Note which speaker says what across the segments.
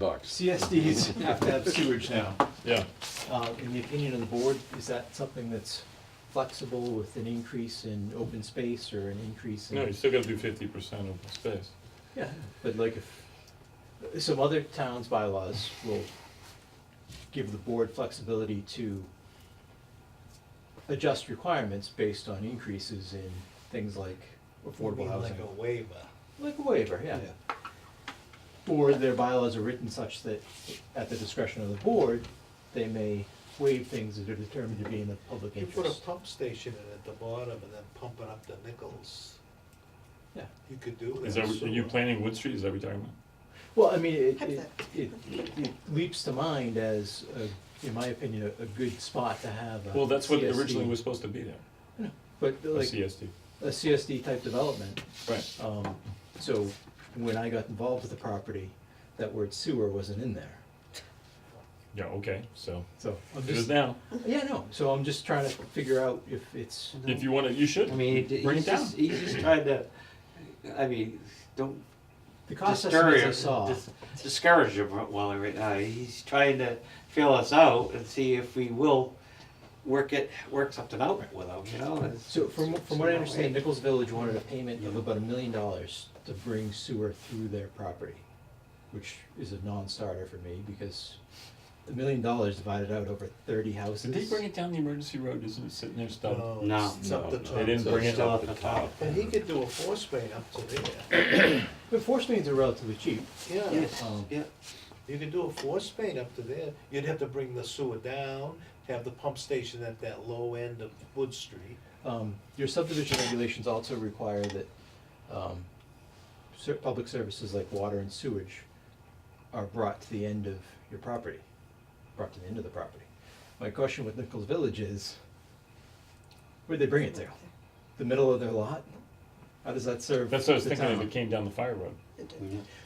Speaker 1: bucks.
Speaker 2: CSDs have to have sewage now.
Speaker 3: Yeah,
Speaker 2: Uh, In the opinion of the board, is that something that's flexible with an increase in open space or an increase in?
Speaker 3: no, you still gotta do fifty percent of the space.
Speaker 2: Yeah, but like if, some other towns' bylaws will give the board flexibility to adjust requirements based on increases in things like affordable housing.
Speaker 4: Like a waiver.
Speaker 2: Like a waiver, yeah. Or their bylaws are written such that, at the discretion of the board, they may waive things that are determined to be in the public
Speaker 4: You put a
Speaker 2: interest.
Speaker 4: pump station in at the bottom and then pump it up to Nichols,
Speaker 2: Yeah,
Speaker 4: you could do that.
Speaker 3: Is that, are you
Speaker 4: So-
Speaker 3: planning Wood Street, is that what you're talking about?
Speaker 2: well, I mean, it, it, it it leaps to mind as, a- in my opinion, a, a good spot to have a
Speaker 3: Well, that's what
Speaker 2: CSD.
Speaker 3: originally was supposed to be there,
Speaker 2: But
Speaker 3: a
Speaker 2: like,
Speaker 3: CSD,
Speaker 2: a CSD type development,
Speaker 3: right,
Speaker 2: um, so when I got involved with the property, that word sewer wasn't in there,
Speaker 3: yeah, okay, so,
Speaker 2: so I'm
Speaker 3: it is
Speaker 2: just,
Speaker 3: now,
Speaker 2: yeah, no, so I'm just trying to figure out if it's.
Speaker 3: if you wanna, you should,
Speaker 5: I mean, he-
Speaker 3: bring
Speaker 5: he's
Speaker 3: it down.
Speaker 2: E
Speaker 5: just, he's just trying to, I mean, don't
Speaker 2: The cost estimates I
Speaker 5: discourage,
Speaker 2: saw,
Speaker 5: dis- discourage him uh, while right now. He's trying to feel us out and see if we will work it, work something out with him, you know? It's-
Speaker 2: so from, from what I understand,
Speaker 5: it's-
Speaker 2: Nichols Village wanted a payment of about a million dollars to bring sewer through their property, which is a non-starter for me, because a million dollars divided out over thirty houses.
Speaker 3: Did they bring it down the emergency road, isn't it sitting there
Speaker 2: Uh,
Speaker 3: stubbed?
Speaker 4: No,
Speaker 5: No.
Speaker 4: it's up the
Speaker 3: No,
Speaker 4: top.
Speaker 3: They didn't
Speaker 5: So
Speaker 3: bring
Speaker 5: it's
Speaker 3: it
Speaker 5: still
Speaker 3: up,
Speaker 5: at the top.
Speaker 4: And he could do a force main up to there,
Speaker 2: But force mains are relatively cheap,
Speaker 4: yeah,
Speaker 5: Yes,
Speaker 2: um,
Speaker 5: yeah.
Speaker 4: you could do a force main up to there, you'd have to bring the sewer down, have the pump station at that low end of Wood Street.
Speaker 2: Um, your subdivision regulations also require that, um, cer- public services like water and sewage are brought to the end of your property, brought to the end of the property. My question with Nichols Village is, where'd they bring it to? The middle of their lot? How does that serve the town?
Speaker 3: That's what I was thinking, if it came down the fire road.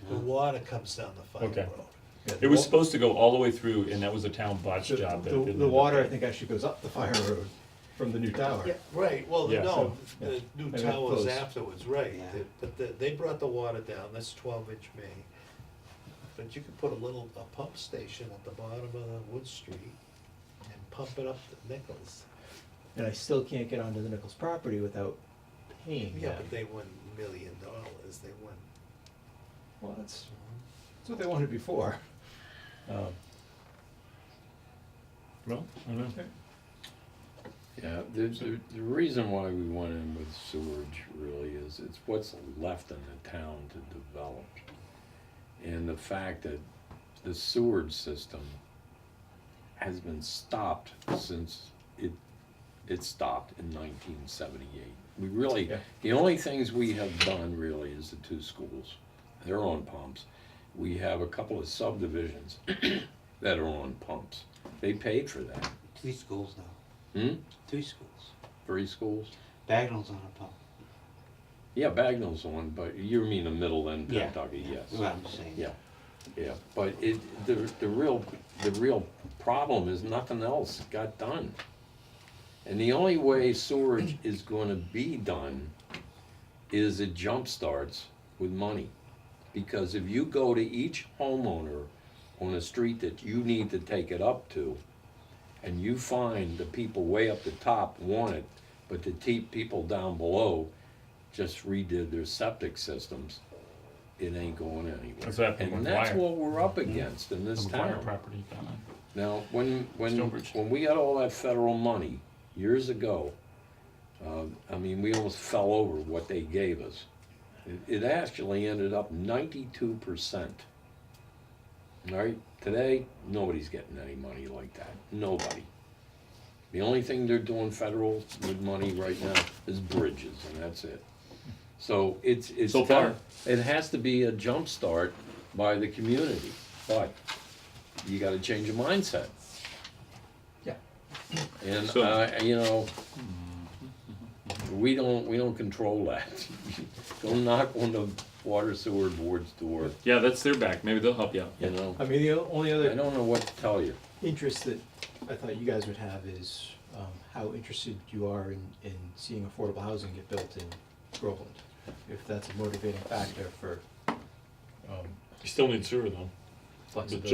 Speaker 4: The water comes down the fire
Speaker 3: Okay.
Speaker 4: road.
Speaker 2: Yeah,
Speaker 3: It was
Speaker 2: wa-
Speaker 3: supposed to go all the way through, and that was a town botch
Speaker 2: the-
Speaker 3: job.
Speaker 2: the-
Speaker 3: that didn't
Speaker 2: The
Speaker 3: end up
Speaker 2: water, I
Speaker 3: there.
Speaker 2: think, actually goes up the fire road from the new tower.
Speaker 4: Right, well,
Speaker 3: Yeah,
Speaker 4: no,
Speaker 2: so-
Speaker 4: the new
Speaker 2: They got
Speaker 4: towers
Speaker 2: close.
Speaker 4: afterwards, right,
Speaker 5: Yeah.
Speaker 4: They- but the- they brought the water down, that's twelve inch main. But you could put a little, a pump station at the bottom of the Wood Street and pump it up to Nichols.
Speaker 2: And I still can't get onto the Nichols property without paying
Speaker 4: Yeah,
Speaker 2: them.
Speaker 4: but they won million dollars, they won.
Speaker 2: Well, that's, that's what they wanted before. Um,
Speaker 3: Well, I don't know.
Speaker 1: Yeah, the, the, the reason why we went in with sewage really is it's what's left in the town to develop. And the fact that the sewage system has been stopped since it, it stopped in nineteen seventy-eight. We really,
Speaker 2: Yeah.
Speaker 1: the only things we have done really is the two schools, they're on pumps. We have a couple of subdivisions that are on pumps. They paid for that.
Speaker 5: Three schools now,
Speaker 1: Hmm?
Speaker 5: three schools.
Speaker 1: Three schools?
Speaker 5: Bagnell's on a pump.
Speaker 1: Yeah, Bagnell's the one, but you mean the middle end
Speaker 5: Yeah.
Speaker 1: Pentucky,
Speaker 5: That's
Speaker 1: yes.
Speaker 5: what I'm saying.
Speaker 1: Yeah, yeah, but it, the, the real, the real problem is nothing else got done. And the only way storage is gonna be done is it jump starts with money. Because if you go to each homeowner on a street that you need to take it up to, and you find the people way up the top want it, but the te- people down below just redid their septic systems, it ain't going
Speaker 3: That's
Speaker 1: anywhere.
Speaker 3: what happened
Speaker 1: And
Speaker 3: with
Speaker 1: that's
Speaker 3: Wire.
Speaker 1: what we're up against in this
Speaker 3: The fire
Speaker 1: town.
Speaker 3: property down there.
Speaker 1: Now, when, when,
Speaker 3: Stonebridge.
Speaker 1: when we got all that federal money years ago, uh, I mean, we almost fell over what they gave us. It, it actually ended up ninety-two percent. All right, today, nobody's getting any money like that, nobody. The only thing they're doing federal with money right now is bridges, and that's it. So it's, it's.
Speaker 3: So far.
Speaker 1: got- It has to be a jump start by the community, but you gotta change your mindset.
Speaker 2: Yeah.
Speaker 1: And,
Speaker 3: So-
Speaker 1: uh, you know, we don't, we don't control that. Go knock on the water sewer board's door,
Speaker 3: Yeah, that's their back, maybe they'll help you out.
Speaker 1: you know?
Speaker 2: I mean, the o- only
Speaker 1: I
Speaker 2: other
Speaker 1: don't know what to tell you.
Speaker 2: interest that I thought you guys would have is um, how interested you are in, in seeing affordable housing get built in Groveland. If that's a motivating factor for, um,
Speaker 3: You still need sewer though.
Speaker 2: flexibility.